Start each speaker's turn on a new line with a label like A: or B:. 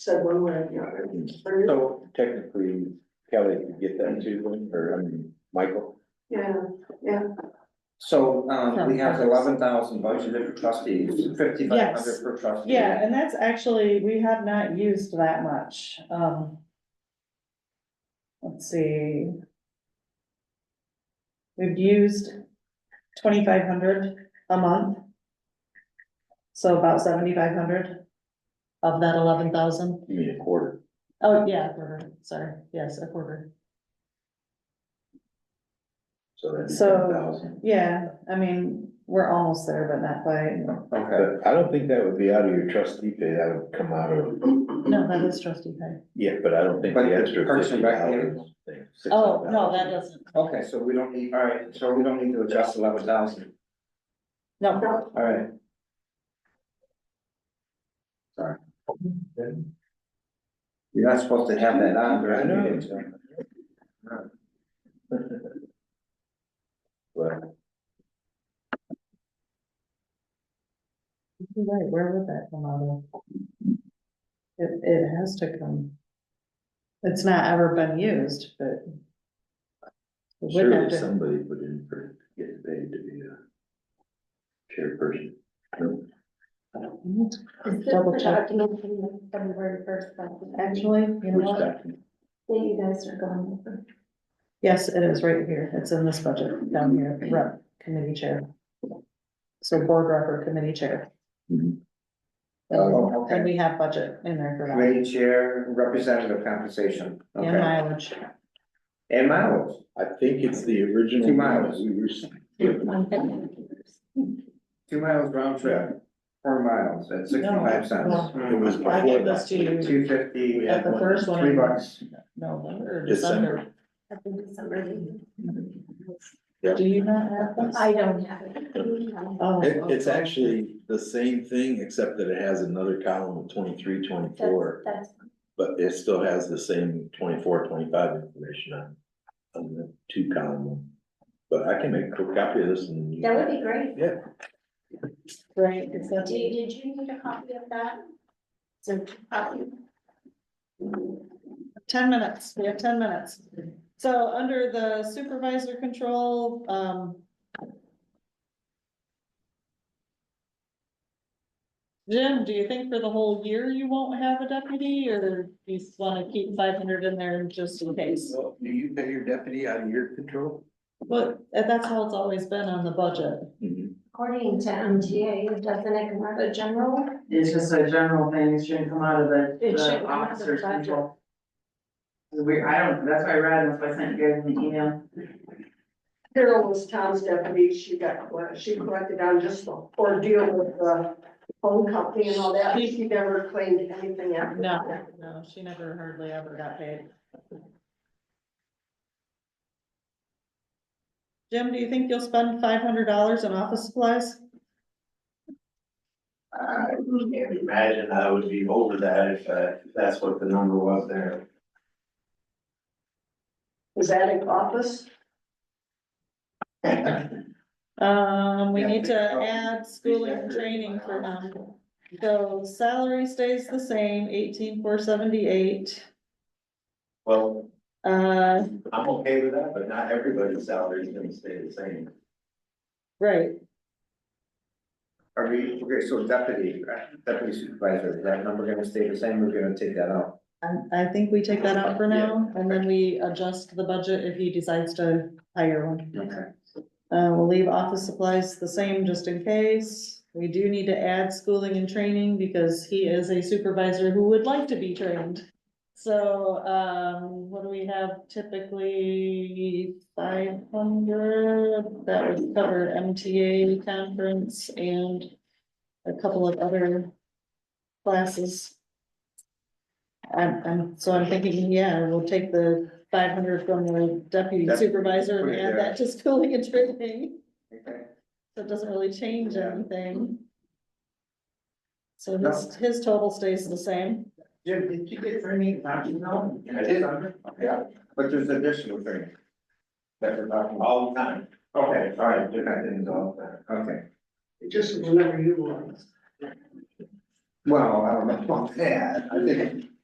A: said one way or the other. Or-
B: So technically, Kelly, you get that too, or, I mean, Michael?
A: Yeah,
C: So, um, we have
D: Sometimes.
C: eleven thousand budgeted for trustees, fifty-five
D: Yes.
C: hundred per trustee.
D: Yeah, and that's actually, we have not used that much, um. Let's see. We've used twenty-five hundred a month. So about seventy-five hundred of that eleven thousand.
B: You mean a quarter?
D: Oh, yeah, a quarter, sorry, yes, a quarter.
B: So that's
D: So-
B: ten thousand.
D: Yeah, I mean, we're almost there, but not quite.
C: Okay,
B: But I don't think that would be out of your trustee pay, that would come out of,
D: No, that is trustee pay.
B: yeah, but I don't think
C: But
B: the
C: the
B: extra
C: Parks
B: fifty
C: and Rec
B: dollars.
C: payment?
B: thing, six
D: Oh,
B: hundred
D: no,
B: dollars.
D: that doesn't,
C: okay, so we don't need, all right, so we don't need to adjust eleven thousand,
D: no,
A: no,
C: all right. Sorry. You're not supposed to have that on
B: I
C: during the meeting, so.
B: know. Well,
D: You're Right, where would that come out of? It, it has to come. It's not ever been used, but. It would have
B: surely
D: to,
B: somebody put in for, get paid to be a chairperson. No?
E: Is this
D: Double
E: the
D: check.
E: document from the February first, document?
D: actually, you
B: Which
D: know what?
B: document?
E: that you guys are going over?
D: Yes, it is right here. It's in this budget down here, rep, committee chair. So board rep or committee chair.
B: Mhm.
D: And
C: Oh,
D: and
C: okay,
D: we have budget in there for that
C: committee chair, representative compensation,
D: and
C: okay,
D: mileage.
C: and mileage,
B: I think it's the original.
C: Two miles.
B: We were.
C: two miles round trip, four miles, at sixty-five cents.
B: It was
D: I gave
B: before,
D: this to you
C: Two fifty,
D: at the first one.
C: three bucks,
D: November, December.
B: December,
D: Do you not have this?
E: I don't have it.
D: Oh,
B: It- it's
D: okay.
B: actually the same thing, except that it has another column of twenty-three, twenty-four,
E: That's,
B: but it still has the same 24, 25 information on. On the two column, one. but I can make a quick copy of this and. you-
E: that would be great.
B: Yeah,
D: Right, it's
E: Did,
D: that.
E: did you need a copy of that? So, copy.
D: Ten minutes, we have ten minutes. So under the supervisor control, um. Jim, do you think for the whole year you won't have a deputy or do you just wanna keep five hundred in there just in case?
B: do you pay your deputy out of your control?
D: But that's how it's always been on the budget.
B: Mm-hmm.
E: according to MTA, it doesn't it come out of general?
F: It's just a general thing, it shouldn't come out of the,
E: It shouldn't
F: the
E: come out of the
F: officer's
E: budget.
F: control. It's weird, I don't, that's why I read, that's why I sent you guys an email.
A: Carol was Tom's deputy, she got, collect- she collected on just the ordeal with the phone company and all that, she never claimed anything after
D: No,
A: that.
D: no, she never hardly ever got paid. Jim, do you think you'll spend five hundred dollars on office supplies?
G: I can't imagine I would be over that if, uh, if that's what the number was there.
A: Was that in office?
D: Um, we
C: Yeah,
D: need to
C: they- oh,
D: add schooling and training for, um, so salary stays the same, eighteen four seventy-eight.
G: Well,
D: Uh,
G: I'm okay with that, but not everybody's salary is gonna stay the same.
D: right,
C: are we, okay, so deputy, uh, deputy supervisor, is that number gonna stay the same, we're gonna take that out?
D: I, I think we take that out for now, and then we adjust the budget if he decides to hire one.
C: Okay.
D: Uh, we'll leave office supplies the same just in case. We do need to add schooling and training because he is a supervisor who would like to be trained. So, um, what do we have typically? Five hundred, that would cover MTA conference and a couple of other classes. I'm, I'm, so I'm thinking, yeah, we'll take the five hundred from the deputy
C: That-
D: supervisor
C: put
D: and
C: it
D: add
C: there.
D: that to schooling and training.
C: Okay.
D: So it doesn't really change
C: Yeah.
D: anything. So
C: No.
D: his, his total stays the same.
C: Jim, did you get for me, not you know?
G: I did.
C: Yeah, but there's additional thing. That we're talking about,
G: All the time.
C: okay, all right,
G: Different things all the time.
C: okay,
A: It just was never utilized.
C: Well, I don't know about that, I think